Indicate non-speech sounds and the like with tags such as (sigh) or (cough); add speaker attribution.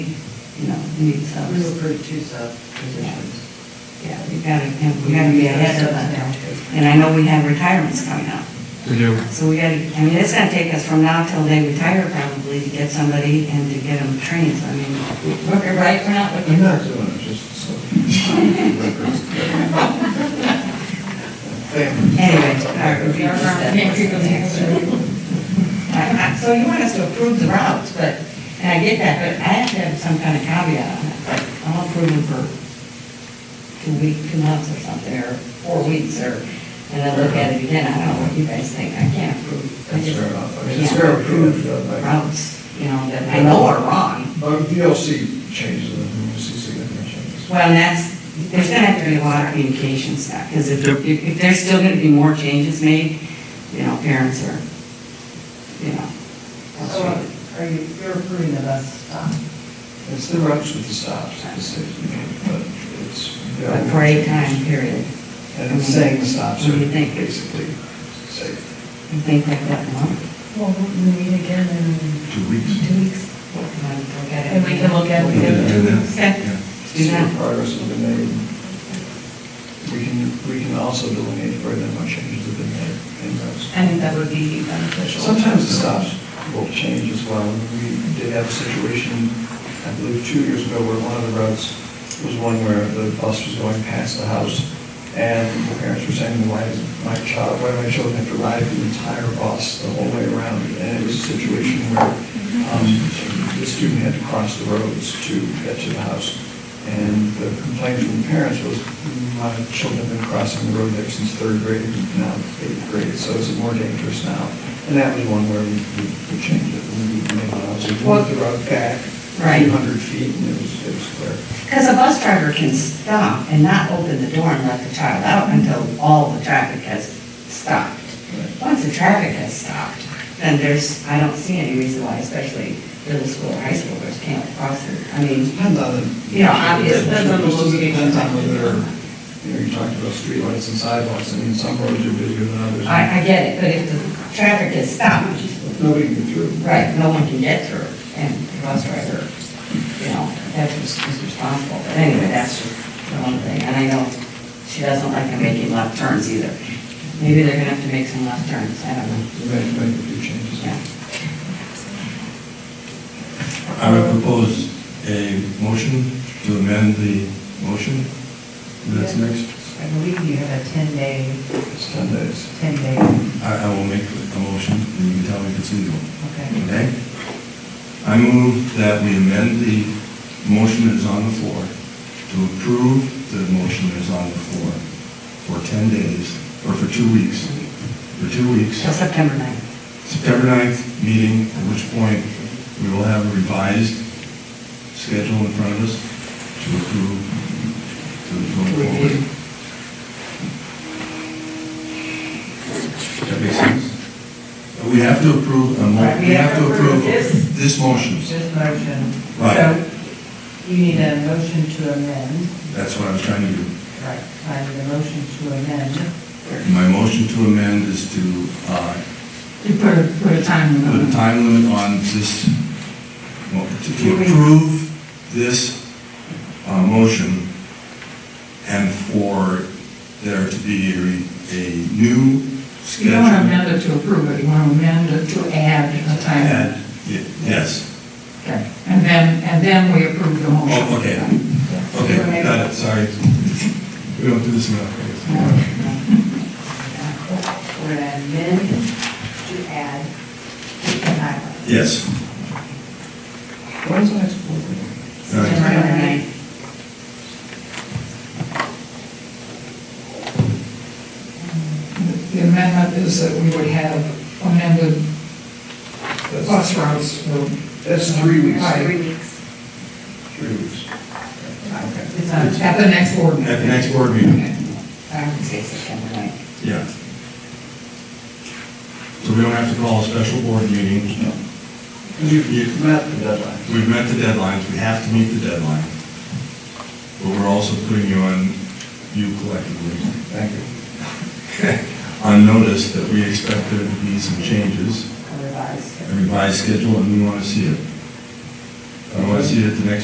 Speaker 1: you know, we need
Speaker 2: We
Speaker 1: subs.
Speaker 2: approved two sub positions.
Speaker 1: Yeah, we gotta, and we gotta be ahead of that. And I know we have retirements coming up.
Speaker 3: We do.
Speaker 1: So we gotta, I mean, it's gonna take us from now till they retire probably to get somebody and to get them trained, so I mean, we're right, we're not looking.
Speaker 4: I'm not doing it, just so.
Speaker 1: Anyway, our review is that. I- I- So you want us to approve the routes, but, and I get that, but I have to have some kind of caveat on it, like, I'll approve them for two week, two months or something, or four weeks, or, and then look at it again, I don't know what you guys think, I can't approve. I
Speaker 4: That's
Speaker 1: just
Speaker 4: fair enough. I mean,
Speaker 1: can't
Speaker 4: it's fair to approve, uh, like-
Speaker 1: Routes, you know, that I know are wrong.
Speaker 4: Um, you'll see changes, and you'll see significant changes.
Speaker 1: Well, and that's, there's gonna have to be a lot of communication stuff, because if, if if there's still gonna be more changes made, you know, parents are, you know.
Speaker 2: So are you, you're approving the bus stop?
Speaker 4: It's the routes with the stops, the safety, but it's.
Speaker 1: a parade time period.
Speaker 4: And it's saying the stops
Speaker 1: What do
Speaker 4: are
Speaker 1: you think? You
Speaker 4: basically safe.
Speaker 1: think like that, no?
Speaker 2: Well, we meet again in
Speaker 3: Two weeks.
Speaker 2: two weeks.
Speaker 1: And
Speaker 2: And we can look at
Speaker 4: We can do
Speaker 2: it.
Speaker 4: that.
Speaker 1: Okay. Do
Speaker 4: See
Speaker 1: that.
Speaker 4: what Progress has been made. We can, we can also delineate further what changes have been made in those.
Speaker 2: I think that would be beneficial.
Speaker 4: Sometimes the stops will change as well. We did have a situation, I believe, two years ago where one of the routes was one where the bus was going past the house and the parents were saying, why is my child, why do my children have to ride the entire bus the whole way around? And it was a situation where um, the student had to cross the roads to get to the house. And the complaint from the parents was, my children have been crossing the road there since third grade, now eighth grade, so it's more dangerous now. And that was one where we, we we changed it, and we made allowances, we moved the road back a
Speaker 1: Right.
Speaker 4: few hundred feet, and it was, it was clear.
Speaker 1: Because a bus driver can stop and not open the door and let the child out until all the traffic has stopped.
Speaker 4: Right.
Speaker 1: Once the traffic has stopped, then there's, I don't see any reason why, especially middle school, high schoolers can't cross it. I mean,
Speaker 4: Depends on the.
Speaker 1: Yeah, obviously,
Speaker 2: depends on the location.
Speaker 4: Depends on whether, you know, you talked about streetlights and sidewalks, I mean, some roads are busier than others.
Speaker 1: I, I get it, but if the traffic is stopped,
Speaker 4: Nobody can get through.
Speaker 1: Right, no one can get through, and the bus driver, you know, that's who's who's responsible, but anyway, that's just the one thing, and I know she doesn't like them making left turns either. Maybe they're gonna have to make some left turns, I don't know,
Speaker 4: We made, made a few changes.
Speaker 1: yeah.
Speaker 3: I would propose a motion to amend the motion. That's
Speaker 2: Yeah.
Speaker 3: next.
Speaker 2: I believe you have a 10-day,
Speaker 4: It's ten days.
Speaker 2: 10-day,
Speaker 3: I, I will make a motion, and you can tell me if it's legal.
Speaker 2: okay.
Speaker 3: Okay? I move that we amend the motion that is on the floor to approve the motion that is on the floor for 10 days, or for two weeks, for two weeks.
Speaker 1: Till September 9th.
Speaker 3: September 9th meeting, at which point we will have a revised schedule in front of us to approve, to go forward.
Speaker 4: Review.
Speaker 3: Does that make sense? We have to approve, a mo- we have to approve this motion.
Speaker 2: This motion.
Speaker 3: Right.
Speaker 2: So you need a motion to amend.
Speaker 3: That's what I was trying to do.
Speaker 2: Right. I need a motion to amend.
Speaker 3: My motion to amend is to uh,
Speaker 2: You put a, put a time
Speaker 3: put a time limit on this, well, to-
Speaker 1: Two
Speaker 3: to
Speaker 1: weeks.
Speaker 3: approve this uh, motion and for there to be a re- a new schedule.
Speaker 5: You don't want to amend it to approve it, you want to amend it to add a time.
Speaker 3: And- ye- Yes.
Speaker 5: Okay. And then, and then we approve the motion.
Speaker 3: Oh, okay. Okay, got it, sorry. We don't do this enough. I guess.
Speaker 1: We're gonna amend to add the highway.
Speaker 3: Yes.
Speaker 4: What is the next board meeting?
Speaker 3: All right.
Speaker 1: September 9th.
Speaker 5: The amendment is that we would have amended
Speaker 4: That's-
Speaker 5: bus routes for.
Speaker 4: That's three weeks.
Speaker 5: Right.
Speaker 1: weeks.
Speaker 4: Three weeks. Okay.
Speaker 2: It's on
Speaker 5: At the next board meeting.
Speaker 3: At the next board meeting.
Speaker 5: Okay.
Speaker 1: I would say September 9th.
Speaker 3: Yeah. So we don't have to call a special board meeting.
Speaker 4: Because you've, you've met the deadline.
Speaker 3: We've met the deadlines, we have to meet the deadline. But we're also putting you on, you collectively,
Speaker 4: Thank you.
Speaker 3: (laughs) on notice that we expect there to be some changes,
Speaker 1: Revised.
Speaker 3: a revised schedule, and we want to see it. I want to see it at the next